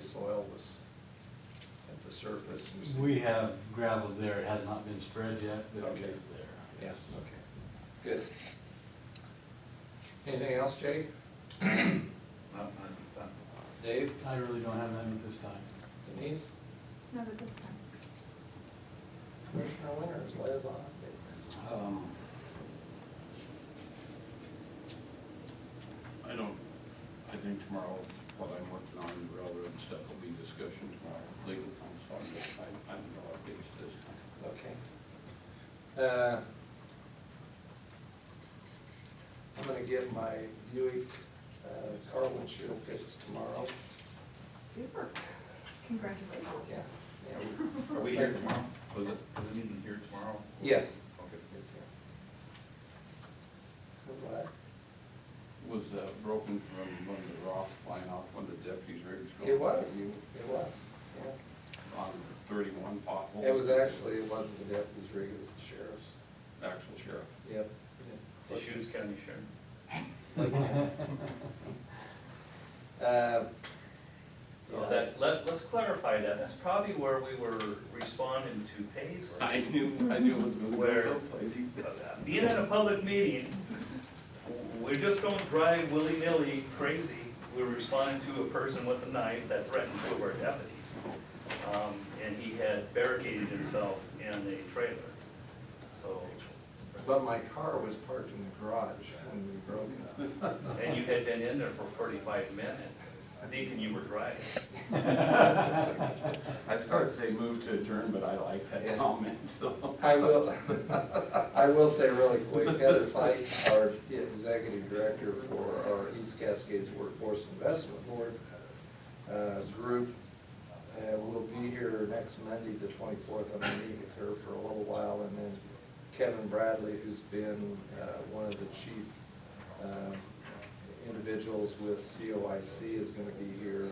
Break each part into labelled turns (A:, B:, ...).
A: soil was at the surface. It was-
B: We have gravel there, it has not been spread yet, but it
A: Okay.
B: is there.
A: Yeah, okay, good. Anything else, Jay?
C: Not mine this time.
A: Dave?
B: I really don't have none at this time.
A: Denise?
D: Not at this time.
A: Commissioner Winters, liaison updates.
C: Um, I don't, I think tomorrow, what I'm working on in railroad stuff will be discussion tomorrow, with legal counsel, on this. I, I have no updates this time.
A: Okay. Uh, I'm gonna get my Buick uh, car windshield fixed tomorrow.
D: Super. Congratulations.
A: Yeah, yeah.
C: Are we here tomorrow? Was it, was it meeting here tomorrow?
A: Yes.
C: Okay.
A: It's here. Good luck.
C: Was uh, broken from one of the rocks flying off one of the deputies' rigs.
A: It was, it was, yeah.
C: On thirty-one potholes.
A: It was actually, it wasn't the deputy's rig, it was the sheriff's.
C: Actual sheriff.
A: Yep.
E: The Shoes County Sheriff.
A: Like, uh,
E: So Oh, that, let, let's clarify that, that's probably where we were responding to Paisley.
C: I knew, I knew it was going to go
E: Where-
C: someplace. He-
E: Being at a public meeting, we just don't drive willy-nilly crazy, we're responding to a person with a knife that threatened two of our deputies. Um, and he had barricaded himself in a trailer, so,
A: But my car was parked in the garage when we broke it up.
E: and you had been in there for forty-five minutes, thinking you were driving.
C: I started to say move to adjourn, but I liked
A: Yeah.
C: that comment, so.
A: I will, I will say really quick, Heather Fike, our executive director for our East Cascades Workforce Investment Board uh, group, uh, will be here next Monday, the twenty-fourth. I'm gonna meet with her for a little while, and then Kevin Bradley, who's been uh, one of the chief um, individuals with COIC, is gonna be here.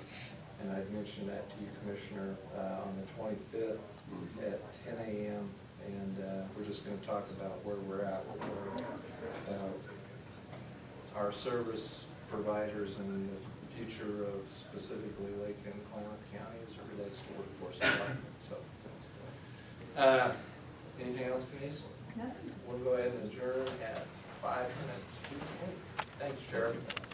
A: And I've mentioned that to you, Commissioner, uh, on the twenty-fifth at ten AM, and uh, we're just gonna talk about where we're at with our, uh, our service providers and the future of specifically Lake and Clamath County as it relates to workforce development, so. Uh, Anything else, Denise?
D: Nothing.
A: We'll go ahead and adjourn at five minutes. Thanks, Sheriff.